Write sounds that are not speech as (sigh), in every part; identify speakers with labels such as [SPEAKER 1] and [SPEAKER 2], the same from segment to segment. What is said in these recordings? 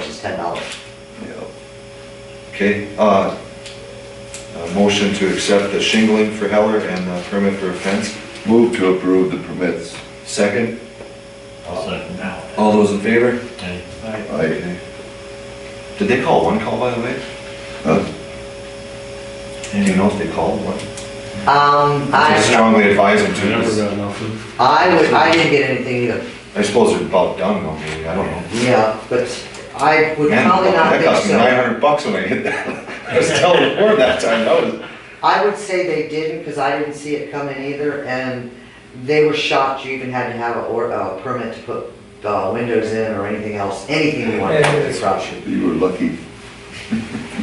[SPEAKER 1] ten dollars.
[SPEAKER 2] Yep. Okay, uh, a motion to accept the shingling for Heller and the permit for a fence.
[SPEAKER 3] Move to approve the permits.
[SPEAKER 2] Second,
[SPEAKER 4] I'll second that.
[SPEAKER 2] all those in favor?
[SPEAKER 4] Okay.
[SPEAKER 3] I,
[SPEAKER 2] Okay. Did they call one call, by the way?
[SPEAKER 3] Huh?
[SPEAKER 2] Do you know if they called one?
[SPEAKER 1] Um,
[SPEAKER 2] I
[SPEAKER 1] I,
[SPEAKER 2] strongly advise them
[SPEAKER 5] I never
[SPEAKER 2] to.
[SPEAKER 5] got nothing.
[SPEAKER 1] I would, I didn't get anything either,
[SPEAKER 2] I suppose they're about done though, maybe, I don't know.
[SPEAKER 1] yeah, but I would
[SPEAKER 2] Man,
[SPEAKER 1] probably not
[SPEAKER 2] That
[SPEAKER 1] think
[SPEAKER 2] cost me nine
[SPEAKER 1] so.
[SPEAKER 2] hundred bucks when I hit that. (laughs) I was telling the board that time, that was.
[SPEAKER 1] I would say they didn't, because I didn't see it coming either, and they were shocked you even had to have a, or, a permit to put, uh, windows in or anything else, anything you wanted to do, probably.
[SPEAKER 3] you were lucky.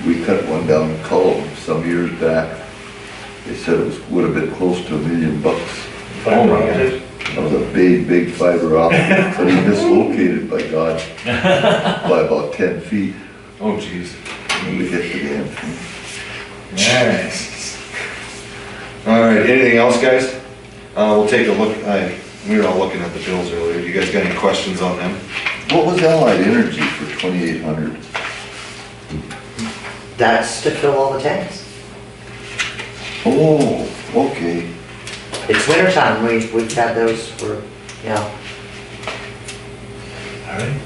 [SPEAKER 3] We cut one down in Cullum some years back. They said it was, would have been close to a million bucks.
[SPEAKER 2] Oh my God.
[SPEAKER 3] That was a big, big fiber optic, but he dislocated, by God, by about ten feet.
[SPEAKER 2] Oh jeez.
[SPEAKER 3] We hit the damn thing.
[SPEAKER 2] Alright. Alright, anything else, guys? Uh, we'll take a look, I, we were all looking at the bills earlier, you guys got any questions on them?
[SPEAKER 3] What was Allied Energy for twenty-eight hundred?
[SPEAKER 1] That's to fill all the tanks.
[SPEAKER 3] Oh, okay.
[SPEAKER 1] It's winter time, we, we've had those for, you know,
[SPEAKER 4] All right.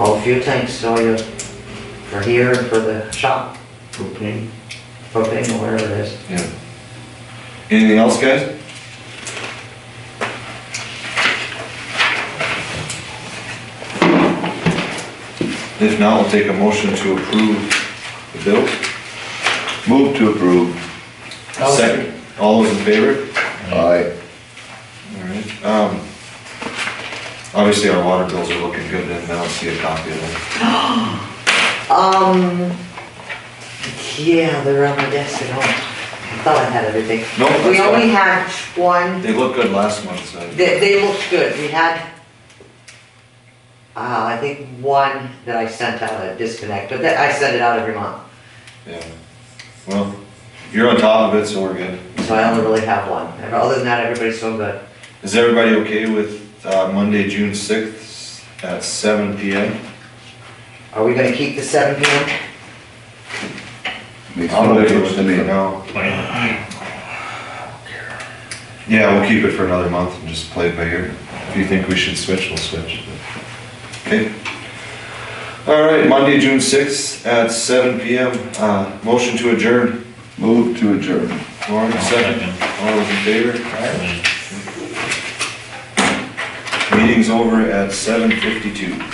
[SPEAKER 1] all the fuel tanks, so you, for here and for the shop,
[SPEAKER 4] Propane.
[SPEAKER 1] propane or whatever it is.
[SPEAKER 2] Yeah. Anything else, guys? If not, we'll take a motion to approve the bills.
[SPEAKER 3] Move to approve.
[SPEAKER 5] I'll second.
[SPEAKER 2] Second, all those in favor?
[SPEAKER 3] Aye.
[SPEAKER 2] Alright, um, obviously our water bills are looking good, and I don't see a copy of them.
[SPEAKER 1] Um, yeah, they're on my desk at home. I thought I had everything.
[SPEAKER 2] No, that's
[SPEAKER 1] We only
[SPEAKER 2] fine.
[SPEAKER 1] had one,
[SPEAKER 2] They looked good last month, so.
[SPEAKER 1] they, they looked good, we had, uh, I think one that I sent out a disconnect, but that, I send it out every month,
[SPEAKER 2] Yeah. Well, you're on top of it, so we're good.
[SPEAKER 1] so I only really have one. Other than that, everybody's so good.
[SPEAKER 2] Is everybody okay with uh, Monday, June sixth at seven PM?
[SPEAKER 1] Are we gonna keep the seven PM?
[SPEAKER 3] Makes
[SPEAKER 2] I'm
[SPEAKER 3] no
[SPEAKER 2] okay
[SPEAKER 3] difference
[SPEAKER 2] with
[SPEAKER 3] to
[SPEAKER 2] it for
[SPEAKER 3] me.
[SPEAKER 2] now. Yeah, we'll keep it for another month and just play it by ear. If you think we should switch, we'll switch. Okay. All right, Monday, June sixth at seven PM. Uh, motion to adjourn.
[SPEAKER 3] Move to adjourn.
[SPEAKER 2] Lauren,
[SPEAKER 4] I'll
[SPEAKER 2] second.
[SPEAKER 4] second.
[SPEAKER 2] All those in favor?
[SPEAKER 4] Aye.
[SPEAKER 2] Meeting's over at seven fifty-two.